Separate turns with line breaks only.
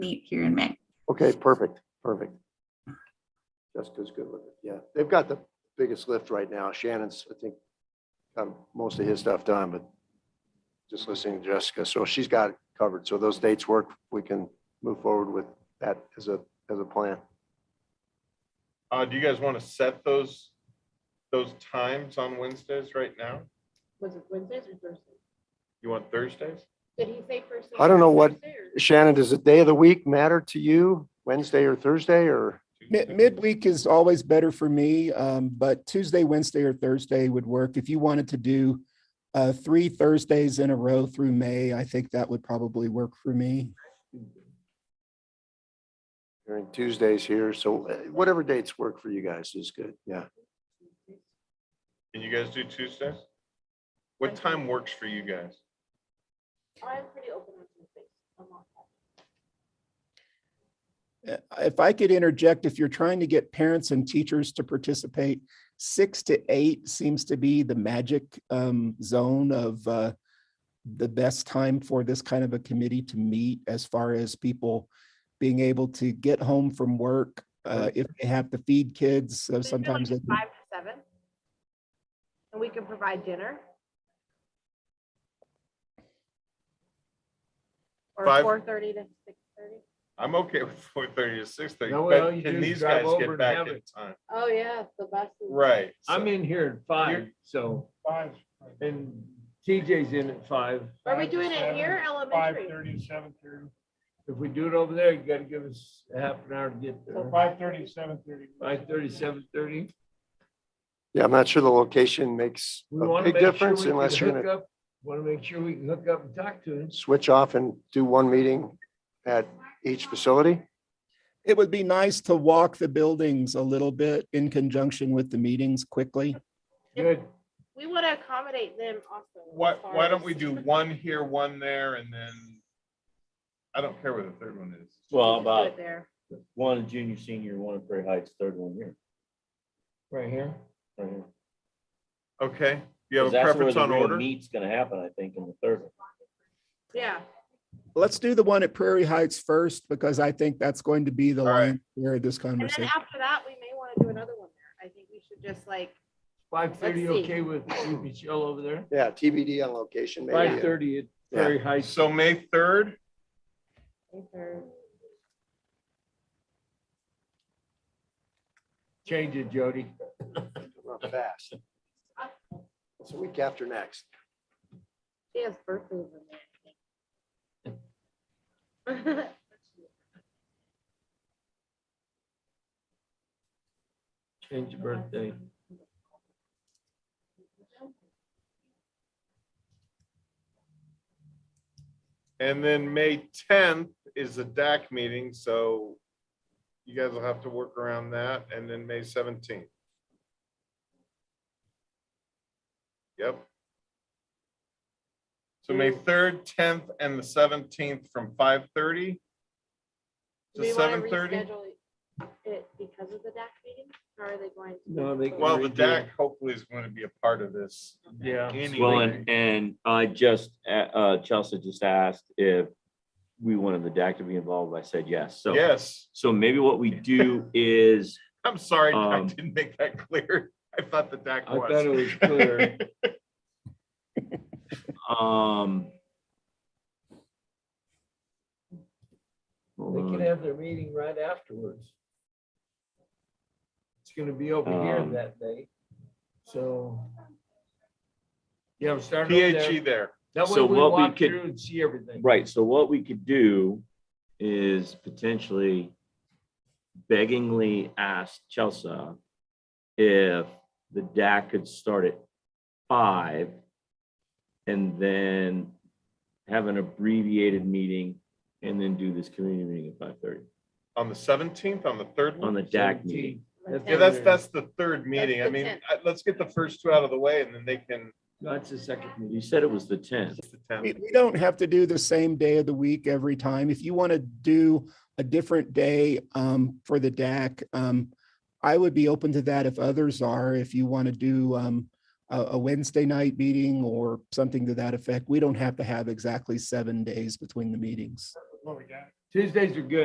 meet here in May.
Okay, perfect, perfect. Jessica's good with it. Yeah, they've got the biggest lift right now. Shannon's, I think, got most of his stuff done, but just listening to Jessica, so she's got it covered. So those dates work. We can move forward with that as a, as a plan.
Uh, do you guys want to set those, those times on Wednesdays right now?
Was it Wednesdays or Thursdays?
You want Thursdays?
Did he say first? and
I don't know
third
what-
Thursday or-
Shannon, does the day of the week matter to you? Wednesday or Thursday or?
Mid-
Tuesday?
Midweek is always better for me, um, but Tuesday, Wednesday, or Thursday would work. If you wanted to do uh, three Thursdays in a row through May, I think that would probably work for me.
During Tuesdays here, so uh, whatever dates work for you guys is good, yeah.
Can you guys do Tuesdays? What time works for you guys?
Oh, I'm pretty open on Tuesdays. I'm not-
Uh, If I could interject, if you're trying to get parents and teachers to participate, six to eight seems to be the magic um, zone of uh, the best time for this kind of a committee to meet as far as people being able to get home from work uh, if they have to feed kids. So
Maybe like
sometimes they can-
Five to seven. And we can provide dinner. Or
Five-
four thirty to six thirty.
I'm okay with four thirty to six thirty,
No, all
but
you
can
do is
these
drive
guys
over
get
and
back
have
in
it.
time?
Oh, yeah, it's the best.
Right.
I'm in here at five,
You're-
so,
Five.
and TJ's in at five.
Are we doing it here,
Five
elementary?
thirty to seven thirty,
If we do it over there, you gotta give us a half an hour to get
or
there.
five thirty to seven thirty.
Five thirty, seven thirty.
Yeah, I'm not sure the location makes
We
a
want
big
to make sure
difference
we
unless you're
can
gonna
hook up, want to make sure we can hook up and talk to him.
switch off and do one meeting at each facility?
It would be nice to walk the buildings a little bit in conjunction with the meetings quickly.
Good.
We want to accommodate them also. as
Why,
far
why don't
as-
we do one here, one there, and then? I don't care where the third one is.
Well,
Just do it
about
there.
one at junior, senior, one at Prairie Heights, third one here.
Right here.
right here.
Okay, you have a
'Cause that's where
preference
the
on
real
order?
Meet's gonna happen, I think, in the third. one.
Yeah,
Let's do the one at Prairie Heights first, because I think that's going to be the
All right.
line where this
and then
conversation.
after that, we may want to do another one there. I think we should just like,
Five thirty,
Let's see.
okay with you, Michelle over there?
Yeah, TBD on location,
Five
maybe.
thirty at Prairie Heights.
So May third,
Change it, Jody.
Not Fast. It's a week after next.
she has birthdays in there. I think.
Change your birthday.
and then May tenth is the DAC meeting, so. You guys will have to work around that, and then May seventeenth. Yep. So May third, tenth, and the seventeenth from five thirty to
Do we wanna
seven thirty.
reschedule It because of the DAC meeting, or are they going? to
No, they-
Well, the
Redo.
DAC hopefully is going to be a part of this.
Yeah.
Well,
anyway.
and, and I just, uh, uh, Chelsea just asked if we wanted the DAC to be involved. I said yes. So,
Yes,
so maybe what we do is,
I'm sorry, I
Um,
didn't make that clear. I thought the DAC
I thought it
was.
was clear.
um. hold
They can
on.
have their meeting right afterwards. It's gonna be over here
Um,
that day, so. Yeah, I'm starting over
PHE
there.
E there.
That way
E So
we
what we
walk
could-
through and see everything.
Right, so what we could do is potentially beggingly ask Chelsea if the DAC could start at five and then have an abbreviated meeting and then do this community meeting at five thirty
On the seventeenth, on the third
on
one?
the DAC meeting.
Let's
Yeah,
have-
that's, that's the third meeting. I
the
mean,
10th.
I- let's get the first two out of the way and then they can.
That's the second meeting.
You said it was the tenth.
it's the 10th.
We, we don't have to do the same day of the week every time. If you want to do a different day um, for the DAC, um, I would be open to that if others are, if you want to do um, a, a Wednesday night meeting or something to that effect. We don't have to have exactly seven days between the meetings.
What we got?
Tuesdays are good.